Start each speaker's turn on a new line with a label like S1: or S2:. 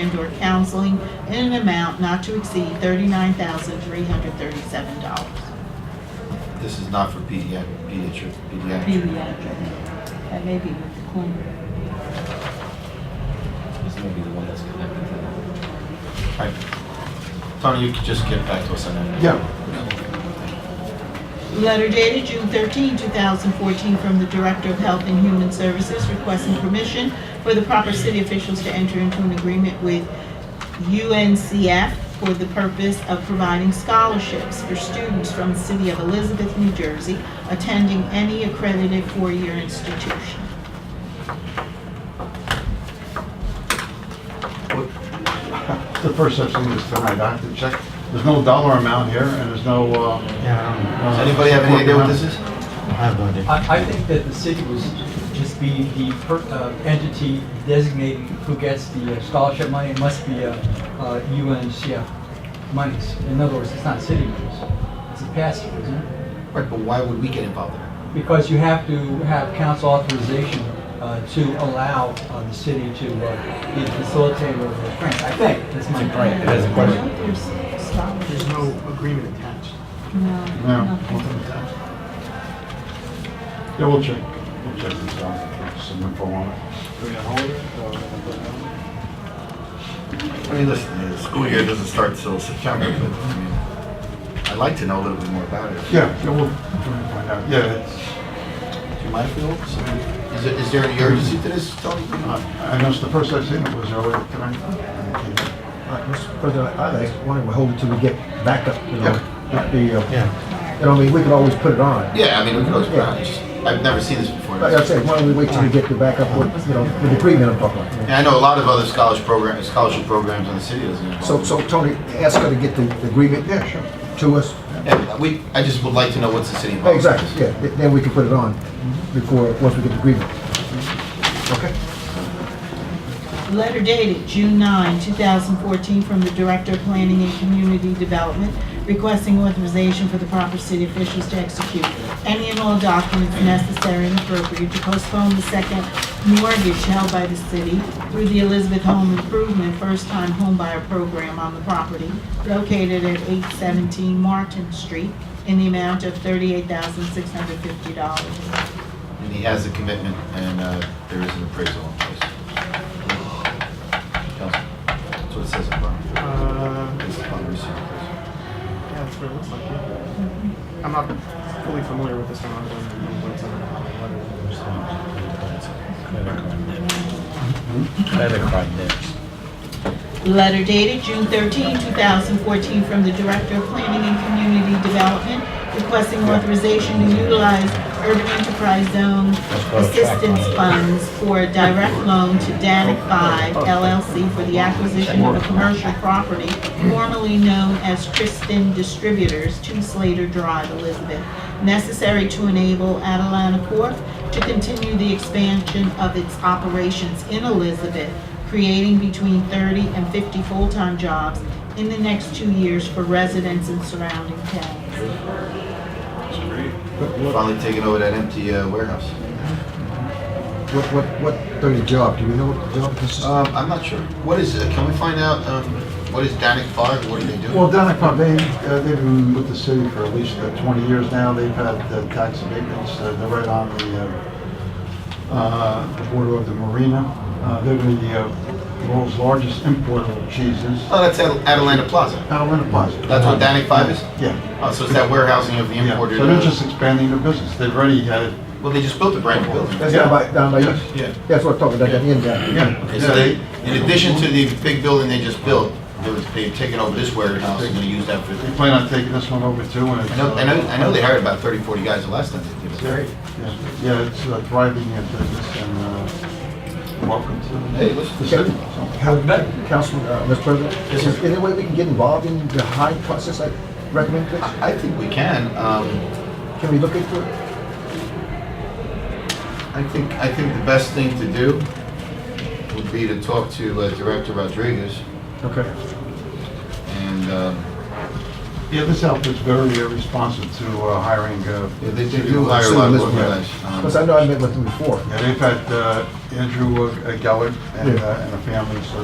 S1: and/or counseling in an amount not to exceed thirty-nine thousand three hundred thirty-seven dollars.
S2: This is not for pediatric, pediatric, pediatric.
S1: Pediatric, that may be with the corner.
S2: This may be the one that's connected to that. Right. Tony, you could just get back to us on that.
S3: Yeah,
S1: Letter dated June 13, 2014, from the Director of Health and Human Services requesting permission for the proper city officials to enter into an agreement with UNCF for the purpose of providing scholarships for students from the city of Elizabeth, New Jersey, attending any accredited four-year institution.
S3: What- the first I've seen this tonight, I have to check. There's no dollar amount here, and there's no, uh...
S2: Does
S4: Yeah,
S2: anybody have any idea what this is?
S4: I don't have no idea.
S5: I, I think that the city was just be the per, uh, entity designating who gets the uh, scholarship money. It must be uh, uh, UNCF monies. In other words, it's not city monies. It's a pass through, isn't it?
S2: Right, but why would we get involved in it?
S5: Because you have to have council authorization uh, to allow uh, the city to uh, be a facilitator of the grant. I think that's my
S2: It has a question.
S1: There's
S6: There's no agreement attached.
S3: No.
S1: No, nothing.
S3: Yeah, we'll check, we'll check this out, Get some info on it.
S2: I mean, listen, the school year doesn't start till September, but I mean, I'd like to know a little bit more about it.
S3: Yeah, yeah, we'll find out, yeah, it's,
S2: Do you mind if we look? So, Is there, is there any urgency to this, Tony?
S3: I I noticed the first I've seen it was earlier tonight.
S7: Uh, Mr. President, I just why don't we hold it till we get back up, you know, with the, uh,
S4: Yeah,
S7: you know, I mean, we can always put it on.
S2: Yeah, I mean, we can always, I just, I've never seen this before.
S7: Like I said, why don't we wait till we get the back up with, you know, with the agreement I'm talking about.
S2: And I know a lot of other scholarship programs, scholarship programs in the city doesn't involve.
S7: So, so Tony, ask her to get the the agreement
S3: Yeah, sure.
S7: to us.
S2: Yeah, we, I just would like to know what's the city involved. in this.
S7: Exactly, yeah, th- then we can put it on before, once we get the agreement. Okay?
S1: Letter dated June 9, 2014, from the Director of Planning and Community Development requesting authorization for the proper city officials to execute any and all documents necessary and appropriate to postpone the second mortgage held by the city through the Elizabeth Home Improvement First Time Home Buyer Program on the property located at 817 Martin Street in the amount of $38,650.
S2: And he has a commitment and uh, there is an appraisal in place. Counsel, That's what it says upon,
S6: Uh,
S2: based upon the receipt of appraisal.
S6: yeah, that's what it looks like. yeah. I'm not fully familiar with this one. I'm going to read what's on the
S4: credit card debt.
S1: Letter dated June 13, 2014, from the Director of Planning and Community Development requesting authorization to utilize Urban Enterprise Zone Assistance Funds for a direct loan to Danic 5 LLC for the acquisition of a commercial property formerly known as Kristen Distributors, 2 Slater Drive, Elizabeth, necessary to enable Atalanta Corp. to continue the expansion of its operations in Elizabeth creating between 30 and 50 full-time jobs in the next two years for residents in surrounding towns.
S2: Finally taking over that empty uh, warehouse.
S7: What, what, what dirty job, do we know what job this is?
S2: Um, I'm not sure. What is, uh, can we find out, um, what is Danic Five? What do they do?
S3: Well, Donic Pond, they, uh, they've been with the city for at least uh, 20 years now. They've had uh, tax abatements. Uh, They're right on the, uh, uh, the border of the marina. Uh, They're the uh, world's largest importer of cheeses.
S2: Oh, that's At- Atalanta Plaza.
S3: Out of Plaza.
S2: That's what Danic Five is?
S3: Yeah.
S2: Oh, so it's that warehousing of the
S3: Yeah.
S2: imported.
S3: So they're
S2: uh,
S3: just expanding their business. They've already had,
S2: Well, they just built a brand new building.
S7: That's down by, down by,
S3: Yes,
S2: yeah.
S7: that's what I'm talking about, that end down.
S2: Okay, so they, in addition to the big building they just built, they was- they've taken over this warehouse and gonna use that for
S3: they
S2: the.
S3: plan on taking this one over too. and it's, uh,
S2: I know, I know, I know they hired about 30, 40 guys the last time they did it.
S3: Yeah, Yeah, it's uh, thriving uh, business and uh, welcome to
S2: Hey, listen.
S3: the city. So-
S7: How, Councilman, uh, Mr. President, is there any way we can get involved in the hiring process I recommend, please?
S2: I think we can. Um,
S7: Can we look into it?
S2: I think, I think the best thing to do would be to talk to uh, Director Rodriguez
S3: Okay.
S2: and, um,
S3: Yeah, this outfit's very uh, responsive to uh, hiring. uh,
S2: yeah, they they do hire a lot of local guys. Um,
S7: Because I know I met with him before.
S3: Yeah, they've had uh, Andrew uh, Gellert and
S7: Yeah.
S3: uh, and a family, so